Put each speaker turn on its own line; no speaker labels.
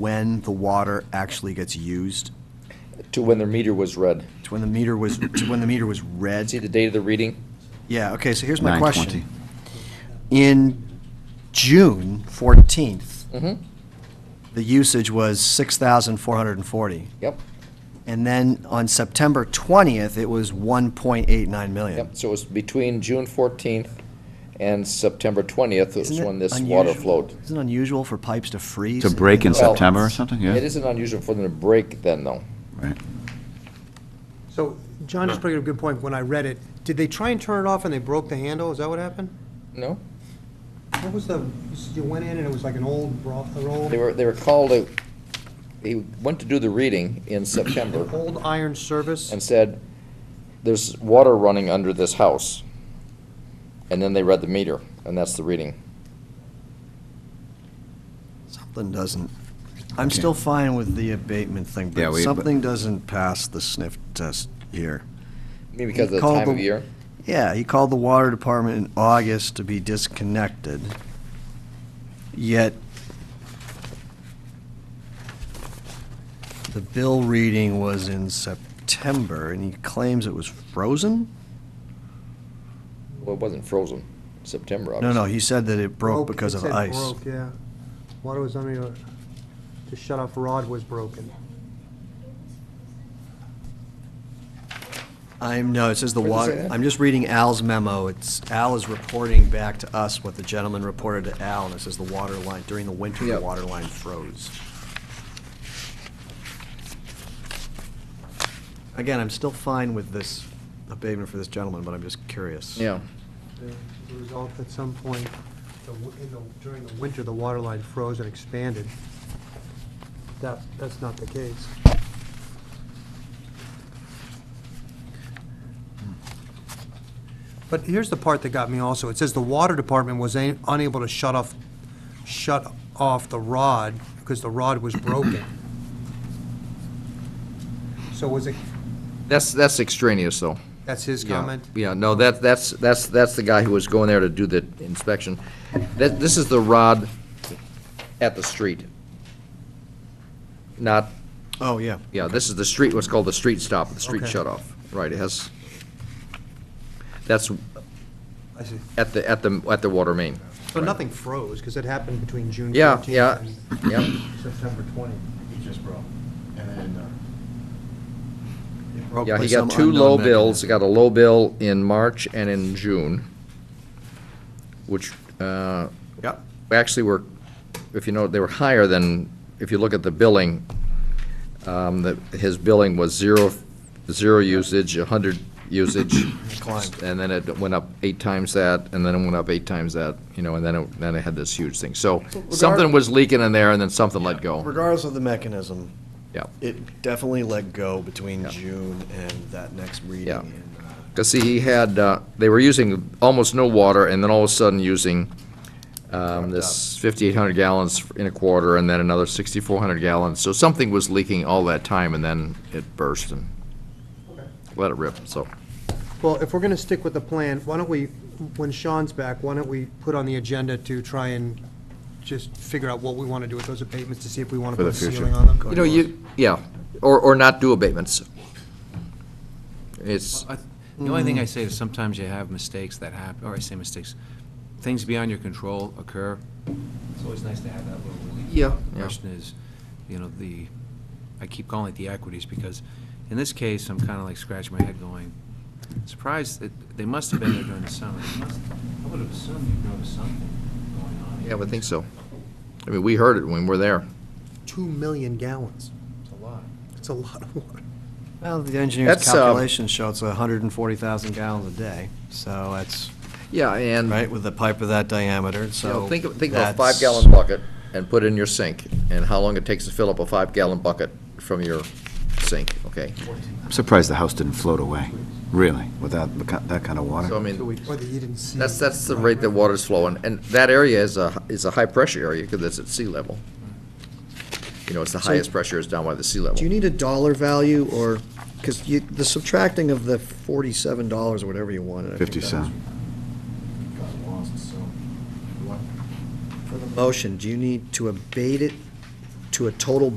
when the water actually gets used.
to when their meter was read.
It's when the meter was, it's when the meter was read.
See the date of the reading?
Yeah, okay, so here's my
9:20.
question. In June fourteenth,
Mm-hmm,
the usage was six thousand four hundred and forty.
yep,
And then on September twentieth, it was one point eight nine million.
yep. So it was between June fourteenth and September twentieth was
Isn't it
when this water
unusual-
flowed.
Isn't it unusual for pipes to freeze?
To break in
the-
Well,
September or something, yeah?
It isn't unusual for them to break then, though.
Right.
So John just brought up a good point. When I read it, did they try and turn it off and they broke the handle? Is that what happened?
No?
What was the, you said you went in and it was like an old broth, an old,
They were, they were called, a- he went to do the reading in September.
old iron service?
and said, "There's water running under this house." And then they read the meter, and that's the reading.
Something doesn't. I'm
Okay.
still fine with the abatement thing,
Yeah,
but
we-
something doesn't pass the sniff test here.
Maybe because of the
Called
time of
the-
year.
Yeah, he called the water department in August to be disconnected. Yet the bill reading was in September and he claims it was frozen?
Well, it wasn't frozen, September,
No,
obviously.
no, he said that it broke because
it
of
said
ice.
broke, Yeah, water was under, your- the shut-off rod was broken.
I'm, no, it says the
Where'd it say
water,
that?
I'm just reading Al's memo. It's, Al is reporting back to us what the gentleman reported to Al and it says the water line, during the winter, the
Yep.
water line froze. Again, I'm still fine with this abatement for this gentleman, but I'm just curious.
Yeah,
The result at some point, the w- in the- during the winter, the water line froze and expanded. That, that's not the case. But here's the part that got me also. It says the water department was a- unable to shut off, shut off the rod because the rod was broken. So was it,
that's, that's extraneous, though.
that's his
Yeah.
comment?
Yeah, no, that, that's, that's, that's the guy who was going there to do the inspection. That, this is the rod at the street. Not,
Oh, yeah.
yeah, this is the street, what's called the street stop, the street
Okay.
shut off. Right, it has, that's
I see.
at the, at the, at the water main.
So nothing froze because it happened between June
Yeah,
14th
yeah,
and
yeah.
September 20.
He just broke. And then, uh.
Yeah, he got two low bills, he got a low bill in March and in June, which, uh,
Yep.
actually were, if you know, they were higher than, if you look at the billing, um, that, his billing was zero, zero usage, a hundred usage.
Climbed.
And then it went up eight times that, and then it went up eight times that, you know, and then it, then it had this huge thing. So
regard-
something was leaking in there and then something let go.
Regardless of the mechanism,
Yeah.
it definitely let go between
Yeah.
June and that next reading.
Yeah.
in, uh,
Because see, he had, uh, they were using almost no water, and then all of a sudden using um, this 5,800 gallons in a quarter, and then another 6,400 gallons. So something was leaking all that time, and then it burst and let it rip, so.
Well, if we're going to stick with the plan, why don't we, when Sean's back, why don't we put on the agenda to try and just figure out what we want to do with those abatements to see if we want to
For
put
the
a
future.
ceiling on them?
You know, you, yeah, or, or not do abatements. It's,
I- The only thing I say is sometimes you have mistakes that happen, or I say mistakes, things beyond your control occur. It's always nice to have that little relief.
Yeah.
The Question is, you know, the, I keep calling it the equities, because in this case, I'm kind of like scratching my head going, surprised that they must have been there during the summer. They must- I would have assumed you'd noticed something going on.
uh,
here.
yeah, I would think so. I mean, we heard it when we were there.
Two million gallons.
It's a lot.
That's a lot of water.
Well, the engineer's
That's, uh,
calculations show it's 140,000 gallons a day, so that's,
Yeah, and.
right, with a pipe of that diameter,
You know,
so.
think of, think of a
that's-
five-gallon bucket and put it in your sink, and how long it takes to fill up a five-gallon bucket from your sink, okay?
I'm surprised the house didn't float away, really, without the ki- that kind of
So, I
water.
mean,
Or that you didn't see.
that's, that's the rate that water's flowing, and that area is a, is a high-pressure area, because it's at sea level. You know, it's the
So-
highest pressure is down by the sea
Do you
level.
need a dollar value, or, because you, the subtracting of the $47 or whatever you wanted. I think uh,
50
that
cent.
got lost, so. For the motion, do you need to abate it to a total